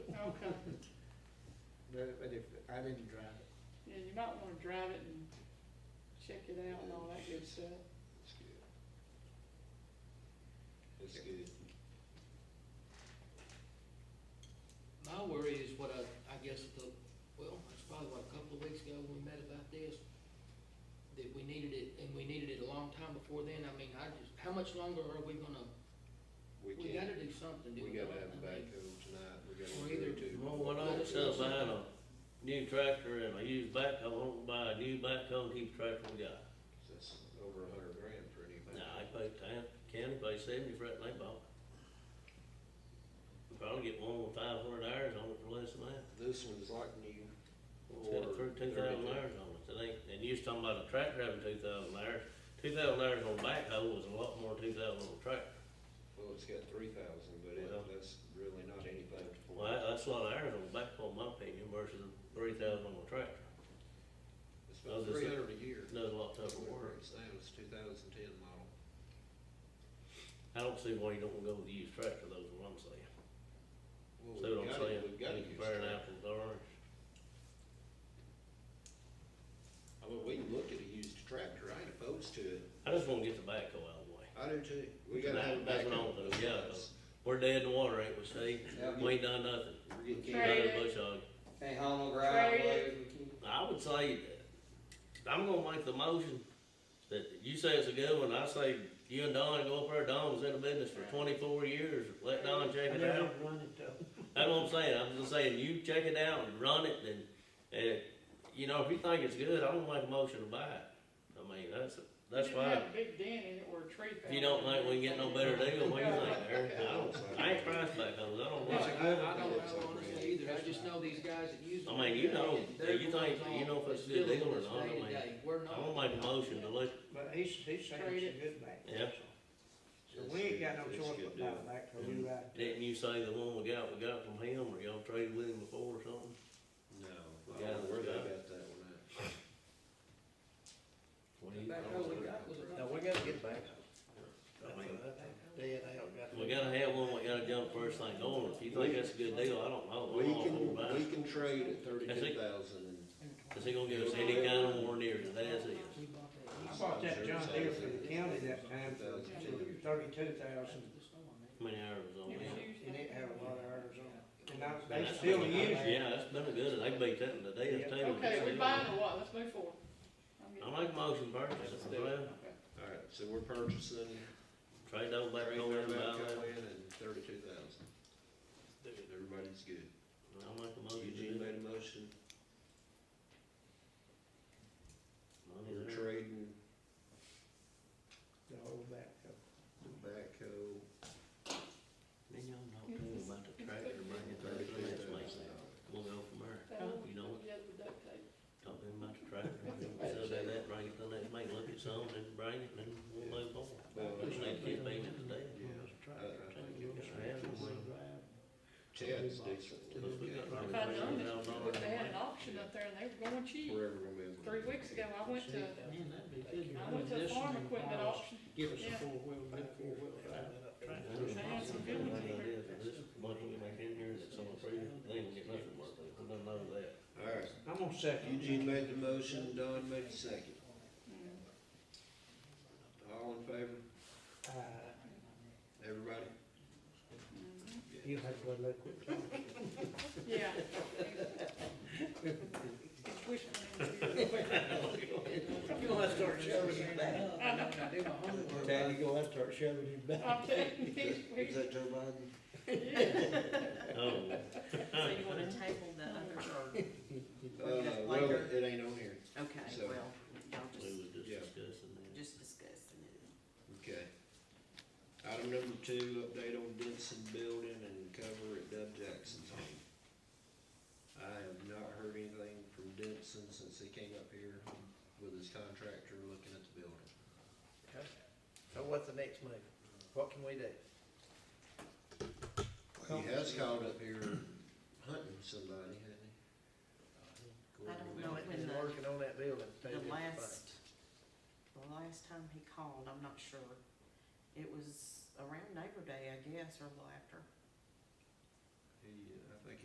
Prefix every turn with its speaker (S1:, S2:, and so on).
S1: but, but if, I didn't drive it.
S2: Yeah, you might wanna drive it and check it out and all that good stuff.
S3: It's good. It's good.
S4: My worry is what I, I guess the, well, it's probably what, a couple of weeks ago we met about this, that we needed it, and we needed it a long time before then. I mean, I just, how much longer are we gonna,
S3: We
S4: we
S3: can't,
S4: gotta do something, do
S3: we
S4: we not?
S3: gotta have a
S4: I mean,
S3: backhoe tonight, we gotta
S4: Or
S3: do
S4: either-
S3: it too.
S5: Well, when I was sitting behind a new tractor and I used backhoe, I won't buy a new backhoe, and keep the tractor we got.
S3: That's over a hundred grand for any backhoe.
S5: Now, I paid ten, county paid seventy for that, and they bought it. We'll Probably get one with five hundred hours on it for less than that.
S3: This one's like new.
S5: It's got
S3: or
S5: through two thousand
S3: 32.
S5: hours on it, I think, and you was talking about a tractor having two thousand hours. Two thousand hours on a backhoe was a lot more than two thousand on a tractor.
S3: Well, it's got three thousand, but
S5: Well.
S3: it, that's really not anything.
S5: Well, that- that's a lot of hours on a backhoe, in my opinion, versus three thousand on a tractor.
S3: It's
S5: Well,
S3: about
S5: this-
S3: three hundred a year.
S5: It Does a lot tougher work.
S3: It's now, it's two thousand ten model.
S5: I don't see why you don't wanna go with the used tractor, though, is what I'm saying.
S3: Well,
S5: See what
S3: we've
S5: I'm
S3: gotta-
S5: saying?
S3: We've gotta
S5: You
S3: use
S5: Compare an
S3: that.
S5: apple to orange.
S3: I mean, we can look at a used tractor, I ain't opposed to it.
S5: I just wanna get the backhoe out of the way.
S3: I do too. We gotta have a
S5: That- That's what I
S3: backhoe.
S5: want to do, yeah, 'cause we're dead in the water, ain't we, Steve?
S6: Yeah.
S5: We ain't done nothing.
S3: We're getting
S2: Right.
S3: kicked
S5: Not a
S2: Trade
S5: bush hog.
S6: Can't home ground,
S2: Trade it.
S6: boys, we keep.
S5: I would say, that- I'm gonna make the motion that you say it's a good one, I say you and Don go up there, Don was in the business for twenty-four years, let Don check it out. That's what I'm saying, I'm just saying, you check it out and run it, and, and, you know, if you think it's good, I don't make a motion to buy it. I mean, that's, that's
S2: It didn't have
S5: fine.
S2: a big dent in it where a tree fell.
S5: If you don't think we can get no better deal, what do you think, Eric? I don't, I ain't priced back those, I don't want it.
S4: I don't know honestly either, I just know these guys that use.
S5: I mean, you know, you think- you know if it's a good deal or not, I mean,
S4: We're not.
S5: I don't make a motion to look,
S7: But he's, he's saying
S2: Trade it.
S7: it's a good back.
S5: Yeah.
S7: So we ain't got no
S3: It's
S7: choice
S3: good
S7: but buy
S3: deal.
S7: a back, cause we right. there.
S5: didn't you say the one we got, we got from him, or y'all traded with him before or something?
S3: No,
S5: We
S3: I
S5: gotta
S3: don't know where they
S5: look
S3: got
S5: it
S3: that one at.
S5: What do
S4: The
S5: you-
S4: backhoe we got was a-
S8: No, we gotta get back.
S5: I mean,
S8: Dead hell, gotta-
S5: We gotta have one, we gotta jump first thing going, if you think that's a good deal, I don't know.
S3: We
S5: I'm all for
S3: can,
S5: buying.
S3: we can trade at thirty-two thousand and.
S5: Is he gonna give us any kind of warranty, or that's it?
S4: We bought that.
S7: I bought that John Deere for the county that time for
S3: $32,000.
S7: thirty-two thousand,
S5: How many hours on
S2: It was
S5: it?
S2: used.
S7: and it had a lot of errors on it. And I,
S5: Man,
S7: they
S5: that's
S7: still
S5: been-
S7: use it.
S5: Yeah, that's been a good, one. they beat that in the day, too.
S2: Okay, we buying or what? Let's move forward. I'm getting-
S5: I make a motion first, that's
S3: do it.
S5: right.
S3: Alright, so we're purchasing,
S5: Trade those back
S3: trade
S5: over
S3: their
S5: and buy
S3: backhoe
S5: that.
S3: in and thirty-two thousand. Everybody's good.
S5: I'll make a motion to
S3: Eugene
S5: do it.
S3: made a motion,
S5: Money
S3: we're
S5: there.
S3: trading
S7: The whole back.
S3: the backhoe
S5: Then y'all know too about the tractor, bring it to the
S3: thirty-two
S5: next
S3: thousand
S5: meeting.
S3: dollars.
S5: We'll go from there.
S2: That one,
S5: You know it.
S2: the other with duct tape.
S5: Talk to him about the tractor, so do that, bring it to the next meeting, look at some, then bring it, then we'll move
S3: Well,
S5: on. We just need to get paid today. Uh,
S3: Chad's decent.
S5: Because we got like
S2: If I'd known
S5: $3,000
S2: that, if they had an auction up there and they were going cheap,
S3: Wherever we're moving.
S2: three weeks ago, I went to,
S8: Man, that'd be good.
S2: I went to a farm equipment auction.
S8: Give us a
S2: Yeah.
S8: four-wheel, good four-wheel drive.
S2: had some good ones in there.
S5: This money we make in here that someone free, they ain't gonna get nothing worth it, we don't know that.
S3: Alright,
S7: I'm gonna second.
S3: Eugene made the motion, Don made the second. All in favor,
S7: Uh,
S3: everybody?
S2: Mm-hmm.
S7: You have one look.
S2: Yeah. It's wishing
S8: You gonna start shoving your back.
S2: I know,
S4: I do my homework.
S8: Tad, you gonna start shoving your back.
S9: Um,
S2: I'm telling you,
S3: Is
S2: it's
S3: that- is
S2: wishing.
S3: that Joe Biden?
S5: Oh.
S9: So you want to table the other,
S3: Uh,
S9: that
S3: well,
S9: later.
S3: it ain't on here,
S9: okay,
S3: So-
S9: well, y'all
S5: We
S9: just,
S5: were
S3: Yeah.
S5: just discussing that.
S9: just discussing it.
S3: okay. Item number two, update on Denson Building and cover at Dub Jackson's home. I have not heard anything from Denson since he came up here with his contractor looking at the building.
S8: Okay. So what's the next move? What can we do?
S3: He has called up here hunting somebody, hasn't he?
S9: I don't know when
S8: Been
S9: the,
S8: working on that building.
S9: the last, the last time he called, I'm not sure. It was around Labor Day, I guess, or a little after.
S3: He, uh,